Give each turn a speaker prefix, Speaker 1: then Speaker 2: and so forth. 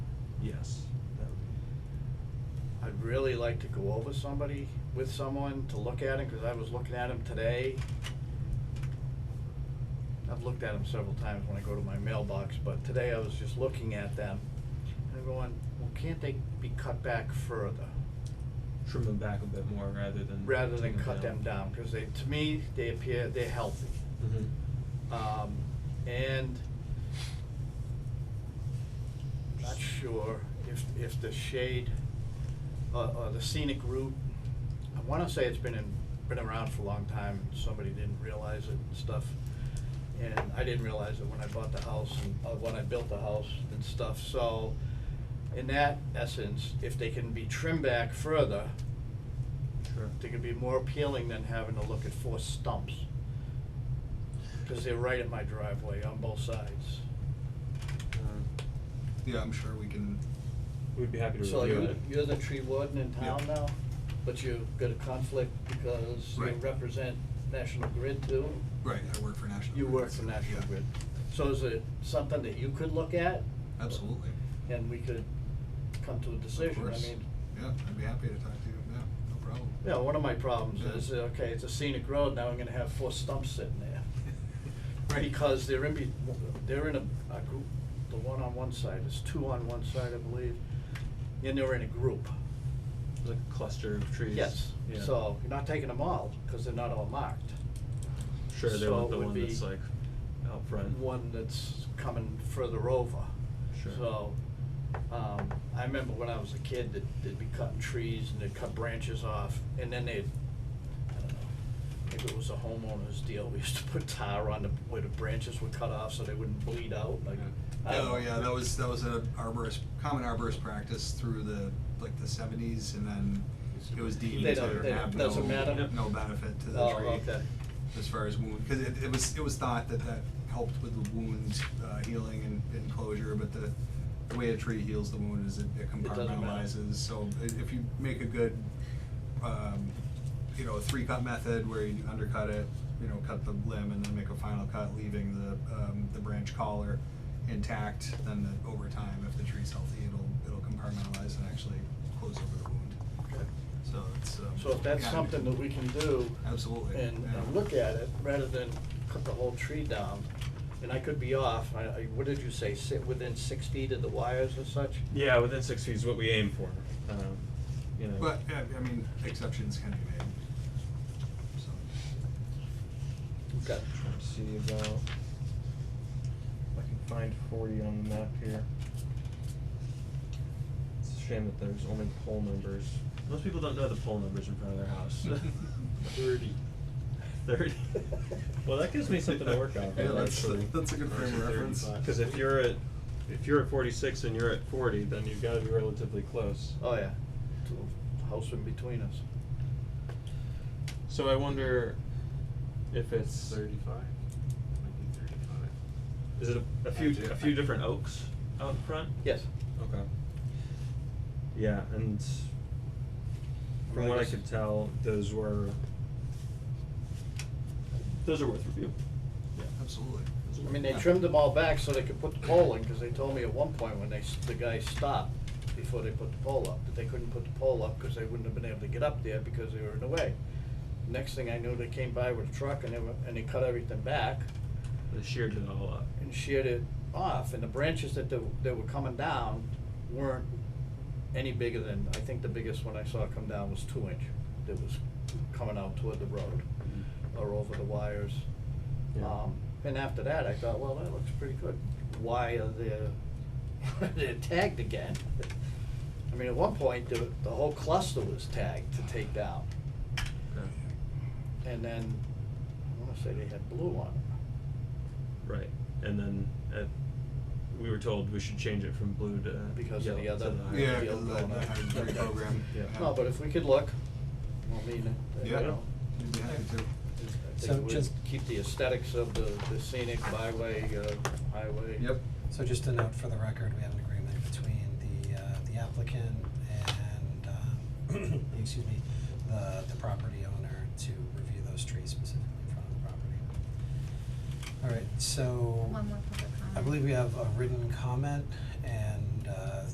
Speaker 1: yes. that would be- I'd really like to go over somebody, with someone to look at him, cause I was looking at him today. I've looked at them several times when I go to my mailbox, but today I was just looking at them and I'm going, well, can't they be cut back further?
Speaker 2: Trim them back a bit more rather than.
Speaker 1: Rather
Speaker 2: take
Speaker 1: than cut them down, cause they, to me, they appear, they're healthy.
Speaker 2: Mhm.
Speaker 1: Um, and not sure if, if the shade, uh, uh, the scenic route, I wanna say it's been in, been around for a long time, and somebody didn't realize it and stuff. And I didn't realize it when I bought the house and, uh, when I built the house and stuff, so in that essence, if they can be trimmed back further,
Speaker 2: Sure.
Speaker 1: they can be more appealing than having to look at four stumps. Cause they're right at my driveway on both sides.
Speaker 2: Um,
Speaker 3: Yeah, I'm sure we can.
Speaker 2: We'd be happy to
Speaker 1: So
Speaker 2: review
Speaker 1: you,
Speaker 2: it.
Speaker 1: you're the tree warden in town
Speaker 3: Yeah.
Speaker 1: now, but you've got a conflict because you
Speaker 3: Right.
Speaker 1: represent National Grid too?
Speaker 3: Right, I work for National.
Speaker 1: You
Speaker 3: Grid,
Speaker 1: work for
Speaker 3: so,
Speaker 1: National
Speaker 3: yeah,
Speaker 1: Grid. So is it something that you could look at?
Speaker 3: Absolutely.
Speaker 1: And we could come to a
Speaker 3: Of
Speaker 1: decision, I
Speaker 3: course.
Speaker 1: mean,
Speaker 3: Yeah, I'd be happy to talk to you. Yeah, no problem.
Speaker 1: yeah, one of my problems
Speaker 3: Yeah.
Speaker 1: is, uh, okay, it's a scenic road, now I'm gonna have four stumps sitting there.
Speaker 3: Right.
Speaker 1: Because they're in, be- they're in a, a group, the one on one side, there's two on one side, I believe, and they're in a group.
Speaker 2: Like a cluster of trees.
Speaker 1: Yes,
Speaker 2: Yeah.
Speaker 1: so you're not taking them all, cause they're not all marked.
Speaker 2: Sure, they
Speaker 1: so
Speaker 2: want
Speaker 1: it
Speaker 2: the
Speaker 1: would
Speaker 2: one that's
Speaker 1: be
Speaker 2: like out front.
Speaker 1: One that's coming further over.
Speaker 2: Sure.
Speaker 1: So, um, I remember when I was a kid that they'd be cutting trees and they'd cut branches off and then they'd, I don't know, maybe it was a homeowner's deal, we used to put tar on the, where the branches were cut off so they wouldn't bleed out, like. I don't
Speaker 3: Oh,
Speaker 1: know.
Speaker 3: yeah, that was, that was a arborist, common arborist practice through the, like, the seventies, and then it was deemed
Speaker 1: They
Speaker 3: to
Speaker 1: don't- they-
Speaker 3: have
Speaker 1: doesn't
Speaker 3: no,
Speaker 1: matter?
Speaker 3: no benefit to the
Speaker 1: Oh,
Speaker 3: tree.
Speaker 1: okay.
Speaker 3: As far as wound, cause it, it was, it was thought that that helped with the wound, uh, healing and, and closure, but the, the way a tree heals the wound is it it
Speaker 1: It doesn't matter.
Speaker 3: compartmentalizes, so i- if you make a good, um, you know, a three-cut method where you undercut it, you know, cut the limb and then make a final cut, leaving the, um, the branch collar intact, then that over time, if the tree's healthy, it'll, it'll compartmentalize and actually close over the wound.
Speaker 1: Okay.
Speaker 3: So it's, um.
Speaker 1: So if that's
Speaker 3: yeah, I mean,
Speaker 1: something that we can do.
Speaker 3: Absolutely,
Speaker 1: And,
Speaker 3: yeah.
Speaker 1: and look at it, rather than cut the whole tree down, and I could be off, I, I, what did you say, sit within six feet of the wires or such?
Speaker 2: Yeah, within six feet is what we aim for. Um, you know.
Speaker 3: But, yeah, I mean, exceptions can be made, so.
Speaker 1: Okay.
Speaker 2: Trying to see about, if I can find forty on the map here. It's a shame that there's only poll numbers. Most people don't know the poll numbers in front of their house.
Speaker 1: Thirty.
Speaker 2: Thirty. Well, that gives me something to work on,
Speaker 3: Yeah, that's,
Speaker 2: actually.
Speaker 3: that's a good frame of reference.
Speaker 2: Cause if you're at, if you're at forty-six and you're at forty, then you've gotta be relatively close.
Speaker 1: Oh, yeah, little house in between us.
Speaker 2: So I wonder if it's.
Speaker 4: Thirty-five? Might be thirty-five.
Speaker 2: Is it a, a few, a few different oaks out front?
Speaker 1: Yes.
Speaker 2: Okay. Yeah, and from what I could tell, those were. Those are worth review. Yeah.
Speaker 3: Absolutely.
Speaker 1: I mean, they trimmed them all back so they could put the pole in, cause they told me at one point when they, s- the guy stopped before they put the pole up, that they couldn't put the pole up, cause they wouldn't have been able to get up there because they were in the way. Next thing I knew, they came by with a truck and they were, and they cut everything back
Speaker 2: They sheared it all up.
Speaker 1: and sheared it off, and the branches that, the- that were coming down weren't any bigger than, I think the biggest one I saw come down was two inch, that was coming out toward the road
Speaker 2: Mm-hmm.
Speaker 1: or over the wires.
Speaker 2: Yeah.
Speaker 1: Um, and after that, I thought, well, that looks pretty good. Why are they, they're tagged again? I mean, at one point, the, the whole cluster was tagged to take down.
Speaker 2: Okay.
Speaker 1: And then, I wanna say they had blue on them.
Speaker 2: Right, and then at, we were told we should change it from blue to.
Speaker 1: Because of the
Speaker 2: yellow to
Speaker 1: other-
Speaker 2: higher
Speaker 3: Yeah,
Speaker 1: Yeah,
Speaker 3: because of
Speaker 1: going
Speaker 3: that, that
Speaker 1: up.
Speaker 3: hybrid
Speaker 1: Okay.
Speaker 3: program.
Speaker 2: Yeah.
Speaker 1: No, but if we could look, I mean, uh, you
Speaker 3: Yeah,
Speaker 1: know,
Speaker 3: we'd be happy to.
Speaker 1: I think
Speaker 5: So
Speaker 1: it would
Speaker 5: just-
Speaker 1: keep the aesthetics of the, the scenic byway, uh, highway.
Speaker 3: Yep.
Speaker 5: So just a note for the record, we have an agreement between the, uh, the applicant and, um, excuse me, the, the property owner to review those trees specifically in front of the property. All right, so.
Speaker 6: One more public comment.
Speaker 5: I believe we have a written comment uh,